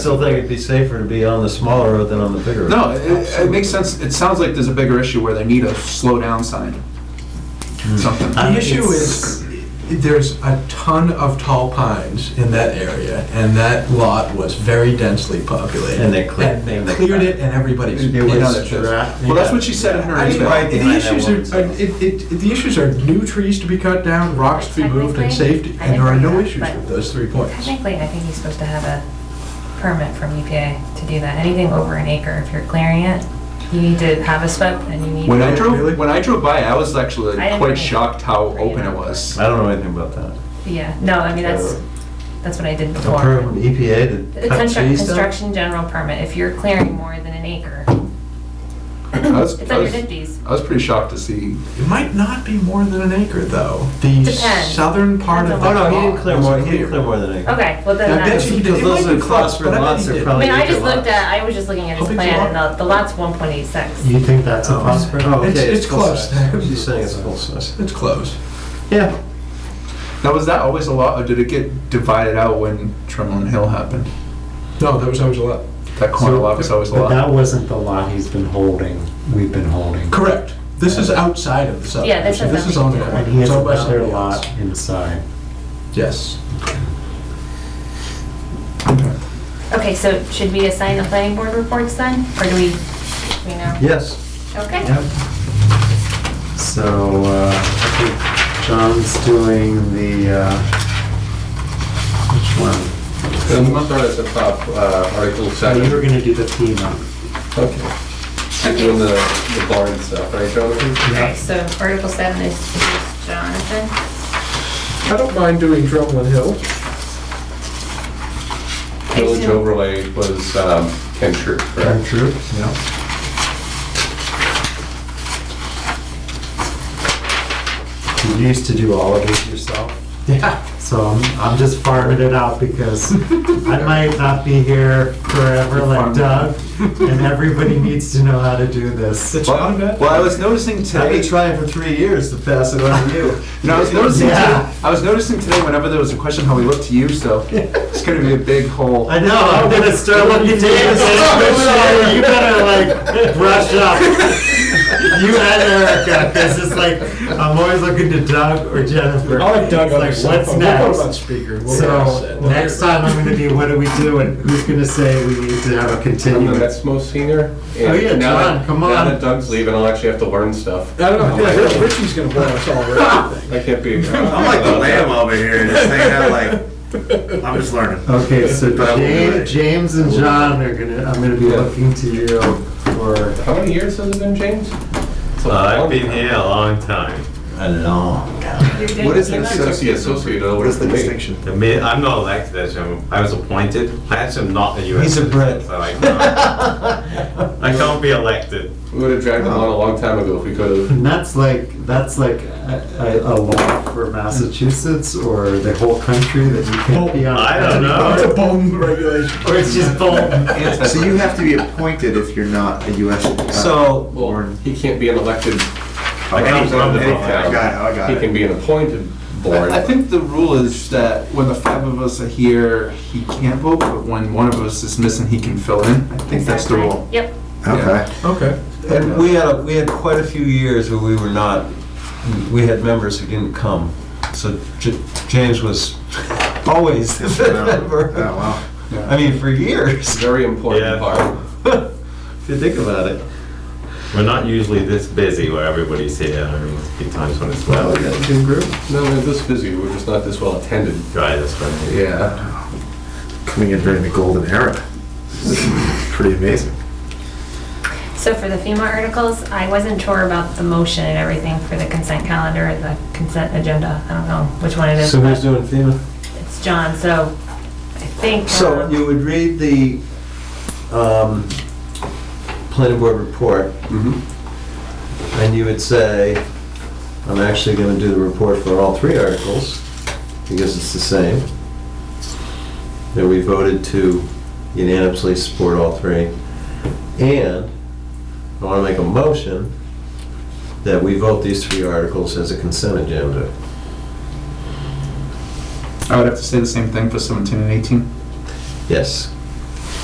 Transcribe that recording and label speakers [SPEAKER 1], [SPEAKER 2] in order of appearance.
[SPEAKER 1] still think it'd be safer to be on the smaller road than on the bigger road.
[SPEAKER 2] No, it- it, it makes sense, it sounds like there's a bigger issue where they need a slow down sign.
[SPEAKER 3] Hmm.
[SPEAKER 2] Something.
[SPEAKER 1] Uh,
[SPEAKER 4] The issue is, there's a ton of tall pines in that area, and that lot was very densely populated.
[SPEAKER 1] And they cleared-
[SPEAKER 4] And they cleared it, and everybody's
[SPEAKER 2] It
[SPEAKER 4] pissed.
[SPEAKER 2] was
[SPEAKER 1] dra-
[SPEAKER 2] Well, that's what she said in her
[SPEAKER 4] I mean,
[SPEAKER 2] email.
[SPEAKER 1] Right
[SPEAKER 4] the
[SPEAKER 1] behind that
[SPEAKER 4] issues
[SPEAKER 1] woman's
[SPEAKER 4] are,
[SPEAKER 1] house.
[SPEAKER 4] it, it, the issues are new trees to be cut down, rocks to be moved, and safety, and there are no issues with those three points.
[SPEAKER 5] Technically, I think he's supposed to have a permit from EPA to do that. Anything over an acre, if you're clearing it, you need to have a SWIP and you need.
[SPEAKER 2] When I
[SPEAKER 4] Really?
[SPEAKER 2] drove, when I drove by, I was actually
[SPEAKER 5] I didn't
[SPEAKER 2] quite
[SPEAKER 5] really-
[SPEAKER 2] shocked how open it was.
[SPEAKER 1] I don't know anything about that.
[SPEAKER 5] Yeah, no, I mean, that's, that's what I did
[SPEAKER 1] E A permit
[SPEAKER 5] before.
[SPEAKER 1] from EPA
[SPEAKER 5] The
[SPEAKER 1] to cut
[SPEAKER 5] constru-
[SPEAKER 1] trees down?
[SPEAKER 5] Construction general permit, if you're clearing more than an acre,
[SPEAKER 2] I was,
[SPEAKER 5] it's
[SPEAKER 2] I
[SPEAKER 5] under
[SPEAKER 2] was,
[SPEAKER 5] fifties.
[SPEAKER 2] I was pretty shocked to see.
[SPEAKER 4] It might not be more than an acre, though. The
[SPEAKER 5] Depends.
[SPEAKER 4] southern part of
[SPEAKER 5] Depends
[SPEAKER 4] the
[SPEAKER 1] Oh,
[SPEAKER 5] on
[SPEAKER 4] lot.
[SPEAKER 1] no, he didn't clear more,
[SPEAKER 4] was
[SPEAKER 1] he didn't clear more than an acre.
[SPEAKER 5] Okay, well
[SPEAKER 4] Yeah,
[SPEAKER 5] then
[SPEAKER 4] I bet you he did.
[SPEAKER 5] that,
[SPEAKER 1] Because
[SPEAKER 4] It
[SPEAKER 1] those
[SPEAKER 4] might be
[SPEAKER 1] are
[SPEAKER 4] close,
[SPEAKER 1] cluster
[SPEAKER 4] but I bet
[SPEAKER 1] lots
[SPEAKER 4] he
[SPEAKER 1] are
[SPEAKER 4] did.
[SPEAKER 5] I
[SPEAKER 1] probably-
[SPEAKER 5] mean, I
[SPEAKER 1] acre
[SPEAKER 5] just looked
[SPEAKER 1] lots.
[SPEAKER 5] at, I was just looking at
[SPEAKER 4] How
[SPEAKER 5] his
[SPEAKER 4] big's the
[SPEAKER 5] plan and
[SPEAKER 4] lot?
[SPEAKER 5] the, the lot's one point eight six.
[SPEAKER 3] You think that's a possibility?
[SPEAKER 1] Oh, okay,
[SPEAKER 4] It's- it's
[SPEAKER 1] full
[SPEAKER 4] close.
[SPEAKER 1] size. She's saying it's full size.
[SPEAKER 4] It's close.
[SPEAKER 1] Yeah.
[SPEAKER 2] Now, was that always a lot, or did it get divided out when Tremlin Hill happened?
[SPEAKER 4] No, that was always a lot.
[SPEAKER 2] That corner lot was always a
[SPEAKER 3] But that
[SPEAKER 2] lot.
[SPEAKER 3] wasn't the lot he's been holding, we've been holding.
[SPEAKER 4] Correct. This is outside of the southern.
[SPEAKER 5] Yeah, this has
[SPEAKER 4] This is on
[SPEAKER 5] nothing
[SPEAKER 4] the.
[SPEAKER 5] to do
[SPEAKER 3] And he
[SPEAKER 4] it's
[SPEAKER 3] has
[SPEAKER 4] owned by
[SPEAKER 3] another
[SPEAKER 4] somebody else.
[SPEAKER 3] lot inside.
[SPEAKER 4] Yes.
[SPEAKER 5] Okay, so should we assign the planning board reports then, or do we, do we know?
[SPEAKER 1] Yes.
[SPEAKER 5] Okay.
[SPEAKER 3] Yep. So, uh, I think John's doing the, uh, which one?
[SPEAKER 6] The month are at the top, uh, Article
[SPEAKER 3] Oh, you were
[SPEAKER 6] 7.
[SPEAKER 3] gonna do the FEMA.
[SPEAKER 6] Okay. You're doing the the barn stuff, right, Jonathan?
[SPEAKER 5] Okay, so Article 7 is is Jonathan.
[SPEAKER 6] I don't mind doing Drumlin Hill. Village
[SPEAKER 5] assume-
[SPEAKER 6] overlay was um, Ken Troop, correct?
[SPEAKER 1] True.
[SPEAKER 3] You used to do all of this yourself? Yeah. So I'm, I'm just farming it out because I might not be here forever like Doug, and everybody needs to know how to do this.
[SPEAKER 4] It's not a bad.
[SPEAKER 2] Well, I was noticing
[SPEAKER 1] I've
[SPEAKER 2] today.
[SPEAKER 1] been trying for three years to pass it on to you.
[SPEAKER 2] No, I was noticing.
[SPEAKER 3] Yeah.
[SPEAKER 2] Today, I was noticing today whenever there was a question how we look to you. So it's going to be a big hole.
[SPEAKER 3] I know, I'm gonna start looking at you and saying, you better like brush up. You and Erica, because it's like, I'm always looking to Doug or Jennifer.
[SPEAKER 4] I'll let Doug
[SPEAKER 3] It's Like, what's next?
[SPEAKER 4] speaker.
[SPEAKER 3] So, next time I'm gonna be, what do we do, and who's gonna say we need to have a
[SPEAKER 6] I'm the
[SPEAKER 3] continuance?
[SPEAKER 6] next most senior. and
[SPEAKER 3] Oh, yeah,
[SPEAKER 6] now that-
[SPEAKER 3] John, come
[SPEAKER 6] Now
[SPEAKER 3] on.
[SPEAKER 6] that Doug's leaving, I'll actually have to learn stuff.
[SPEAKER 4] I don't know, Richie's gonna blow us all right.
[SPEAKER 6] I can't be.
[SPEAKER 7] I'm like the lamb over here, just hanging out like, I'm just learning.
[SPEAKER 3] Okay, so
[SPEAKER 7] But I will do
[SPEAKER 3] Ja-
[SPEAKER 7] it.
[SPEAKER 3] James and John are gonna, I'm gonna be looking to you for,
[SPEAKER 6] How many years has it been, James? It's a long
[SPEAKER 8] Uh,
[SPEAKER 1] Uh,
[SPEAKER 8] I've been
[SPEAKER 6] time.
[SPEAKER 8] here a long time.
[SPEAKER 1] A long
[SPEAKER 5] You're doing
[SPEAKER 2] What is
[SPEAKER 5] the
[SPEAKER 2] an
[SPEAKER 5] same.
[SPEAKER 6] It's just the associate over
[SPEAKER 7] What is the
[SPEAKER 6] to me.
[SPEAKER 7] distinction?
[SPEAKER 8] The mi- I'm not elected, as I'm- I was appointed. I actually am not a US
[SPEAKER 1] He's a
[SPEAKER 8] citizen,
[SPEAKER 1] Brit.
[SPEAKER 8] so I can't- I can't be elected.
[SPEAKER 6] We would have dragged him on a long time ago if we could have.
[SPEAKER 3] and that's like, that's like a, a a law for Massachusetts or the whole country that you can't be on.
[SPEAKER 8] I don't know.
[SPEAKER 4] It's a bone regulation.
[SPEAKER 3] Or it's just Bolton.
[SPEAKER 7] So you have to be appointed if you're not a US. uh,
[SPEAKER 1] So,
[SPEAKER 6] Well, he can't be an elected.
[SPEAKER 8] I can't vote.
[SPEAKER 7] I got it, I got
[SPEAKER 6] He
[SPEAKER 7] it.
[SPEAKER 6] can be an appointed board.
[SPEAKER 2] I I think the rule is that when the five of us are here, he can't vote, but when one of us is missing, he can fill in. I think that's the rule.
[SPEAKER 5] Yep,
[SPEAKER 7] Okay.
[SPEAKER 4] Okay.
[SPEAKER 1] and we had, a- we had quite a few years where we were not, we had members who didn't come. So J- James was always the fifth
[SPEAKER 7] Oh,
[SPEAKER 1] member.
[SPEAKER 7] wow.
[SPEAKER 1] I mean, for years,
[SPEAKER 6] Very important
[SPEAKER 8] Yeah.
[SPEAKER 6] part.
[SPEAKER 1] if you think about it.
[SPEAKER 8] We're not usually this busy where everybody's here. I mean, there's a few times when it's well.
[SPEAKER 6] No, we're this busy, we're just not this well attended.
[SPEAKER 8] Dry this one.
[SPEAKER 6] Yeah.
[SPEAKER 7] Coming in during the golden era. Pretty amazing.
[SPEAKER 5] so for the FEMA articles, I wasn't sure about the motion and everything for the consent calendar, and the consent agenda, I don't know which one it is,
[SPEAKER 1] So who's
[SPEAKER 5] but
[SPEAKER 1] doing FEMA?
[SPEAKER 5] it's John, so I think.
[SPEAKER 1] So
[SPEAKER 5] um,
[SPEAKER 1] you would read the um, planning board report, and you would say, I'm actually going to do the report for all three articles, because it's the same. That we voted to unanimously support all three. And I want to make a motion that we vote these three articles as a consent agenda.
[SPEAKER 2] I would have to say the same thing for 17 and 18.
[SPEAKER 1] Yes.